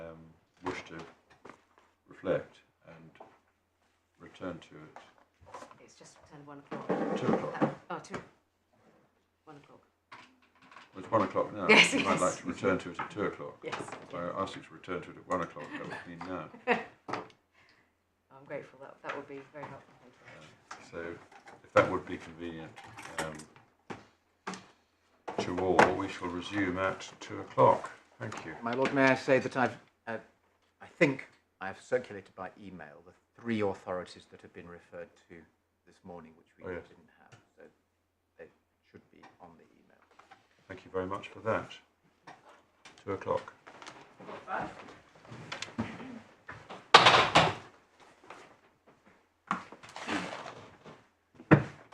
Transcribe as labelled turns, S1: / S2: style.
S1: um, reflect and return to it.
S2: It's just turned one o'clock.
S1: Two o'clock.
S2: Oh, two. One o'clock.
S1: Well, It's one o'clock now.
S2: Yes,
S1: You might
S2: yes.
S1: like to return to it at two o'clock.
S2: Yes.
S1: If I asked you to return to it at one o'clock, that would mean now.
S2: I'm grateful. That that would be very helpful. Thank you.
S1: So if that would be convenient um, to all, we shall resume at two o'clock. Thank you.
S3: My lord, may I say that I've, uh, I think I have circulated by email the three authorities that have been referred to this morning, which we
S1: Oh, yes.
S3: didn't have. So they should be on the email.
S1: Thank you very much for that. Two o'clock.